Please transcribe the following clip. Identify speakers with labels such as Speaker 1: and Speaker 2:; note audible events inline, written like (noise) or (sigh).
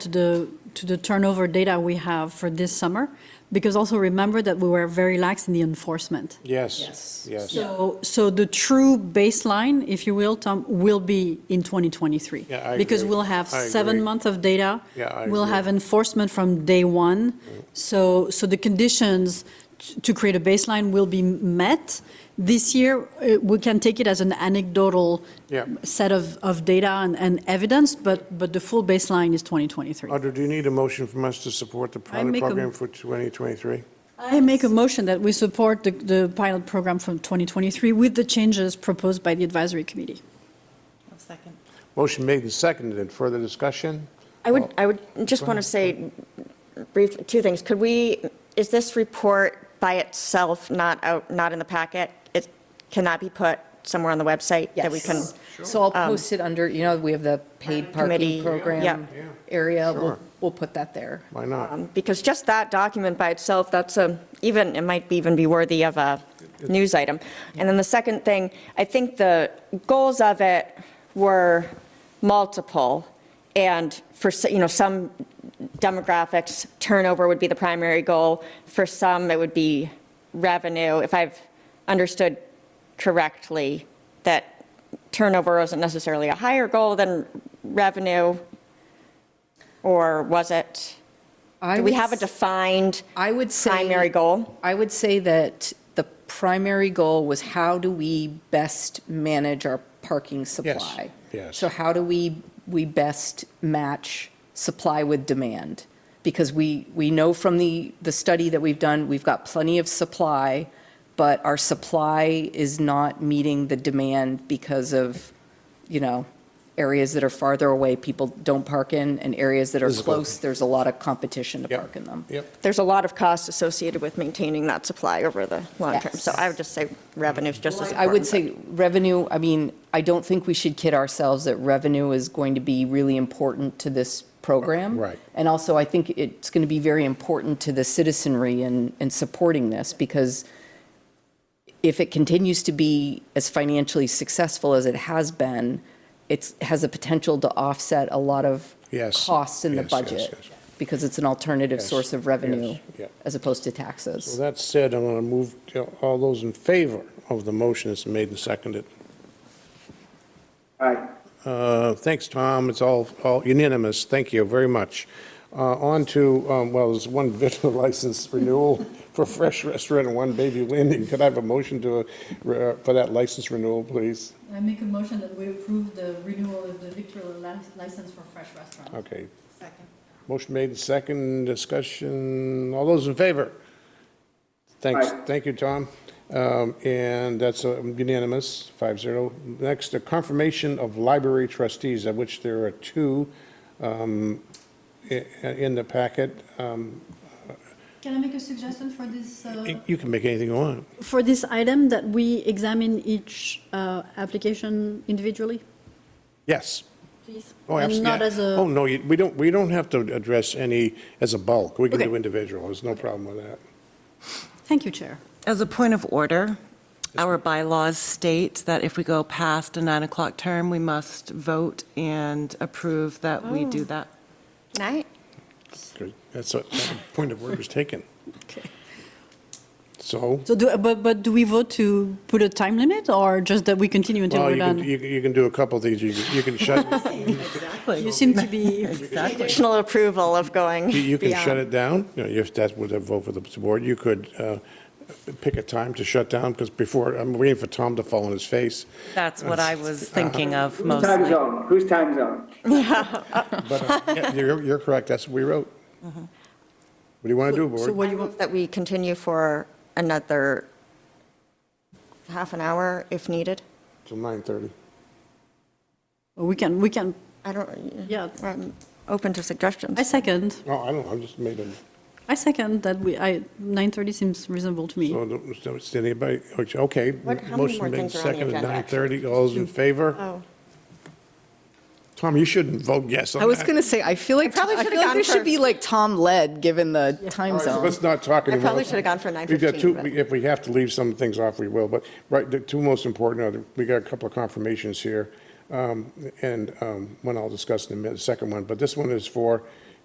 Speaker 1: to the, to the turnover data we have for this summer, because also remember that we were very lax in the enforcement.
Speaker 2: Yes, yes.
Speaker 1: So, so the true baseline, if you will, Tom, will be in 2023.
Speaker 2: Yeah, I
Speaker 1: Because
Speaker 2: agree.
Speaker 1: we'll have
Speaker 2: I
Speaker 1: seven
Speaker 2: agree.
Speaker 1: months of data.
Speaker 2: Yeah, I
Speaker 1: We'll
Speaker 2: agree. Mm.
Speaker 1: have enforcement from day one. So, so the conditions t- to create a baseline will be met. This year, uh, we can take it as an anecdotal
Speaker 2: Yeah.
Speaker 1: set of, of data and, and evidence, but, but the full baseline is 2023.
Speaker 2: Audra, do you need a motion from us to support the pilot
Speaker 1: make a-
Speaker 2: program for 2023?
Speaker 1: I make a motion that we support the, the pilot program from 2023 with the changes proposed by the advisory committee.
Speaker 3: I'll second.
Speaker 2: Motion made and seconded. And Further discussion?
Speaker 4: I would, I would just want to say briefly, two things. Could we, is this report by itself not out, not in the packet? It cannot be put somewhere on the website that we can? um,
Speaker 3: Yes. So I'll post it under, you know, we have the paid
Speaker 4: Committee,
Speaker 3: parking
Speaker 4: yeah.
Speaker 3: program area.
Speaker 2: Sure.
Speaker 3: We'll, we'll put that there.
Speaker 2: Why not?
Speaker 4: um, Because just that document by itself, that's a, even, it might be- even be worthy of a news item. And then the second thing, I think the goals of it were multiple, and for, s- you know, some demographics, turnover would be the primary goal. For some, it would be revenue, if I've understood correctly, that turnover wasn't necessarily a higher goal than revenue, or was it?
Speaker 3: I
Speaker 4: Do we
Speaker 3: would
Speaker 4: have a
Speaker 3: s-
Speaker 4: defined
Speaker 3: I would say.
Speaker 4: primary goal?
Speaker 3: I would say that the primary goal was how do we best manage our parking supply?
Speaker 2: yes.
Speaker 3: So how do we, we best match supply with demand? Because we, we know from the, the study that we've done, we've got plenty of supply, but our supply is not meeting the demand because of, you know, areas that are farther away, people don't park in, and areas that are
Speaker 2: This is what-
Speaker 3: close, there's a lot of competition to
Speaker 2: Yep.
Speaker 3: park in them.
Speaker 2: Yep.
Speaker 4: There's a lot of costs associated with maintaining that supply over the long term. So
Speaker 3: Yes.
Speaker 4: I would just say revenue's just as
Speaker 3: Well,
Speaker 4: important.
Speaker 3: I would
Speaker 4: but-
Speaker 3: say revenue, I mean, I don't think we should kid ourselves that revenue is going to be really important to this program.
Speaker 2: Right.
Speaker 3: And also, I think it's going to be very important to the citizenry in, in supporting this, because if it continues to be as financially successful as it has been, it's, has the potential to offset a lot of
Speaker 2: Yes,
Speaker 3: costs in the
Speaker 2: yes, yes,
Speaker 3: budget,
Speaker 2: yes.
Speaker 3: because it's an alternative
Speaker 2: Yes,
Speaker 3: source of revenue
Speaker 2: yes, yeah.
Speaker 3: as opposed to
Speaker 2: Well,
Speaker 3: taxes.
Speaker 2: that said, I'm going to move to all those in favor of the motion that's made and seconded. Aye. Uh, Thanks, Tom. It's all all unanimous. Thank you very much. Uh, On to, um, well, there's one (laughs) liquor license renewal for Fresh Restaurant and one Baby Landing. Could I have a motion to, uh, re- for that license renewal, please?
Speaker 1: I make a motion that we approve the renewal of the Victor license for Fresh Restaurant.
Speaker 2: Okay.
Speaker 3: Second.
Speaker 2: Motion made, second discussion. All those in favor? Thanks, thank you, Tom. Um, And that's uh, unanimous, five zero. Next, the confirmation of library trustees, of which there are two um, i- in the packet. Um,
Speaker 1: Can I make a suggestion for this? uh,
Speaker 2: You can make anything you want.
Speaker 1: For this item, that we examine each uh, application individually,
Speaker 2: Yes.
Speaker 1: please?
Speaker 2: Oh,
Speaker 1: And
Speaker 2: absolutely.
Speaker 1: not as
Speaker 2: Oh,
Speaker 1: a,
Speaker 2: no, you- we don't, we don't have to address any as a bulk. We can
Speaker 1: Okay.
Speaker 2: do individual, there's no problem with that.
Speaker 1: thank you, Chair.
Speaker 5: As a point of order, our bylaws state that if we go past a nine o'clock term, we must vote and approve that we do that.
Speaker 4: Right?
Speaker 2: Good. That's a that point of order is taken.
Speaker 1: (laughs) Okay.
Speaker 2: So.
Speaker 1: So do, but, but do we vote to put a time limit or just that we continue until
Speaker 2: Well,
Speaker 1: we're
Speaker 2: you can,
Speaker 1: done?
Speaker 2: you can- you can do a couple of things. You can- you
Speaker 1: (laughs)
Speaker 2: can shut,
Speaker 1: You seem to
Speaker 2: (laughs)
Speaker 1: be,
Speaker 4: Conditional approval of going
Speaker 2: you- you can shut
Speaker 4: beyond.
Speaker 2: it down, you know, if that's what the vote for the board. You could uh, pick a time to shut down, because before, I'm waiting for Tom to fall on his
Speaker 4: (laughs)
Speaker 2: face.
Speaker 5: That's what I was thinking of
Speaker 6: Whose time
Speaker 5: mostly.
Speaker 6: zone? Whose time zone?
Speaker 2: But uh, yeah, you're, you're correct, that's what we wrote. What
Speaker 4: Mm-hmm.
Speaker 2: do you want to do,
Speaker 1: so
Speaker 2: board?
Speaker 1: what do you want?
Speaker 4: That we continue for another half an hour if needed.
Speaker 2: Till 9:30.
Speaker 1: We can, we can,
Speaker 4: I don't,
Speaker 1: yeah.
Speaker 4: I'm open to suggestions.
Speaker 1: I second,
Speaker 2: No, Oh, I don't, know, I just made a,
Speaker 1: I second that we, I, 9:30 seems reasonable to me.
Speaker 2: so the- so it's anybody, okay.
Speaker 4: What- how many more
Speaker 2: Motion made
Speaker 4: things are on the
Speaker 2: second at
Speaker 4: agenda,
Speaker 2: 9:30, all those in favor?
Speaker 4: Oh,
Speaker 2: Tom, you shouldn't vote yes on
Speaker 3: I was
Speaker 2: that.
Speaker 3: going to say, I feel like,
Speaker 4: probably
Speaker 3: I
Speaker 4: should've
Speaker 3: feel like
Speaker 4: gone
Speaker 3: there should
Speaker 4: first.
Speaker 3: be like Tom led, given the time
Speaker 2: All right, so
Speaker 3: zone.
Speaker 2: Let's not talk
Speaker 4: I
Speaker 2: anymore.
Speaker 4: probably should've gone for
Speaker 2: We've got
Speaker 4: 9:15,
Speaker 2: two,
Speaker 4: but-
Speaker 2: we- if we have to leave some things off, we will, but, right, the two most important are, the- we got a couple of confirmations here, um, and um, one I'll discuss in a minute, the second one, but this one is for